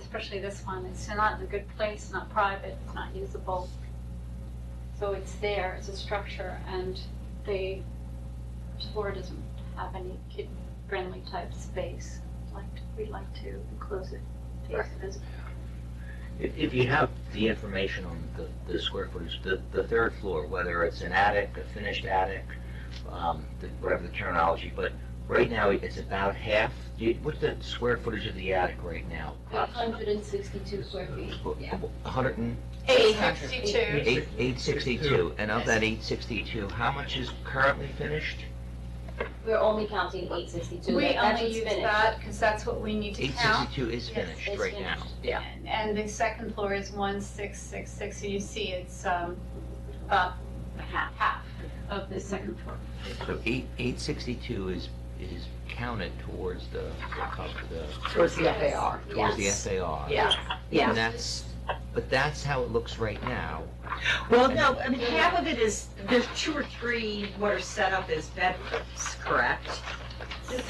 especially this one, it's not in a good place, not private, it's not usable. So it's there as a structure and the floor doesn't have any kid-friendly type space. Like, we'd like to enclose it, face it as If, if you have the information on the, the square footage, the, the third floor, whether it's an attic, a finished attic, um, the- whatever the terminology, but right now it's about half. Do you- What's the square footage of the attic right now? hundred and sixty-two square feet, Uh, yeah. hundred and Eight sixty-two. eight, eight sixty-two, and of that eight sixty-two, how much is currently finished? We're only counting eight sixty-two. We only use that because that's what we need to Eight count. sixty-two is Yes, finished it's right now. finished. Yeah. And- And the second floor is one six six six, so you see it's, um, about half, half. of the second floor. So eight, eight sixty-two is, is counted towards the, the co- the, towards the FAR. towards the Yes. FAR. Yeah, And yeah. that's, but that's how it looks right now. Well, no, I mean, half of it is, there's two or three what are set up as bedrooms, correct?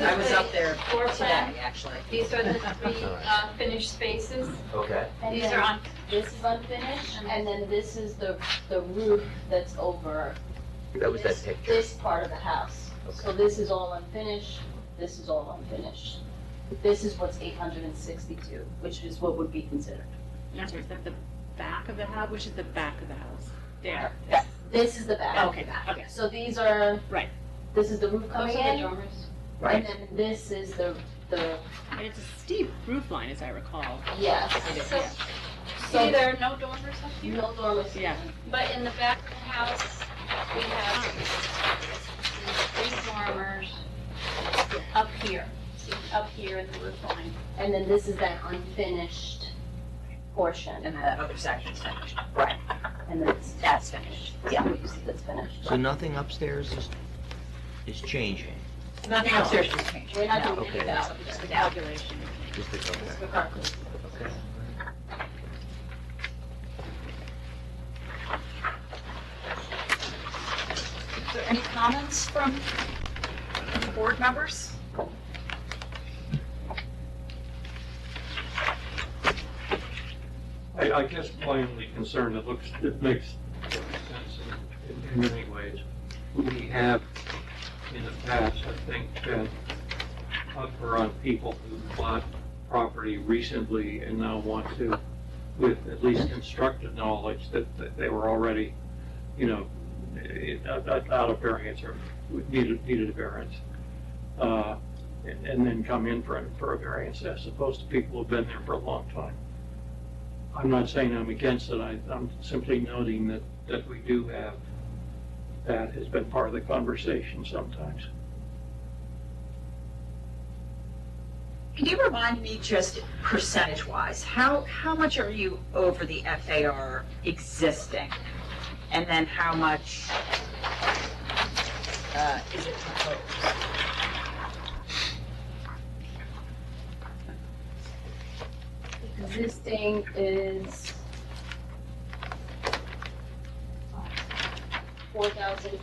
I was up there Floor today, plan, actually. these are the three uh, finished spaces. Okay. And These are then on, this is unfinished, and then this is the, the roof that's over That was that this- picture. This part of the house. So Okay. this is all unfinished, this is all unfinished. This is what's eight hundred and sixty-two, which is what would be considered. That's right, is that the back of the house, which is the back of the house? There. This is the back. Okay, okay. So these are. Right. This is the roof those coming are the in, oh, dormers. and then this is the, the, And it's a steep roof line, as I recall. yes. So, see, there are no dormers up here, No dormers. Yeah. but in the back of the house, we have three dormers up here, see, up here in the roof line. And then this is that unfinished portion, And that other section's finished. Right. and then it's, That's finished. yeah, what you see that's finished. So nothing upstairs is, is changing? Nothing upstairs is changed. We're not doing Okay. any of That's that. up It's there. the calculation. Just the, It's okay, for carpet. okay. Is there Any comments from board members? I, I guess my only concern, it looks, it makes sense in- in many ways. We have in the past, I think, been tougher on people who bought property recently and now want to, with at least constructive knowledge that, that they were already, you know, eh, out out- out of variance or needed, needed a variance. Uh, And and then come in for, a- for a variance as opposed to people who've been there for a long time. I'm not saying I'm against it, I, I'm simply noting that, that we do have, that has been part of the conversation sometimes. Can you remind me just percentage-wise, how, how much are you over the FAR existing? And then how much uh, is it proposed? Existing is four thousand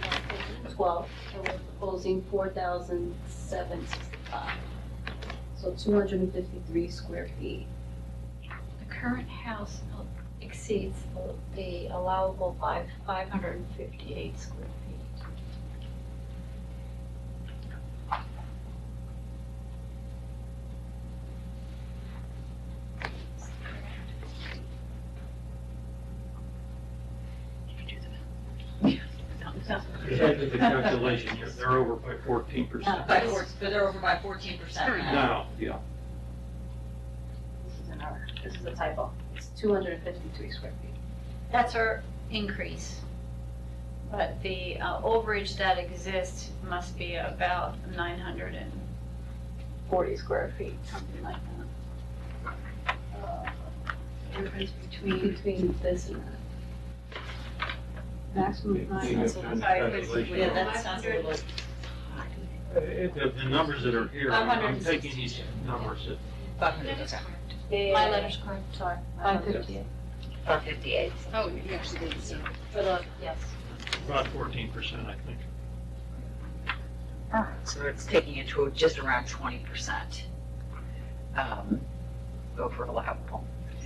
twelve, and we're proposing four thousand seven sixty-five. So two hundred and fifty-three square feet. The current house exceeds the- the allowable by 558 square feet. Exactly the calculation, you're- they're over by fourteen percent By four, but they're over by fourteen percent now. now, yeah. This is an error, this is a typo. It's two hundred and fifty-three square feet. That's our increase. But the uh, overage that exists must be about nine hundred and Forty square feet. something like that. uh, Difference between, between this and that. Maximum. You have done the calculation. Yeah, that sounds a little, Uh, it- The, the numbers that are here, I'm I'm 560. taking these numbers at five hundred percent. My letter's correct, sorry. Five fifty. About fifty-eight. Oh, you actually did, so. For the, yes. about fourteen percent, I think. All right, so it's taking it to just around twenty percent. Um, go for allowable.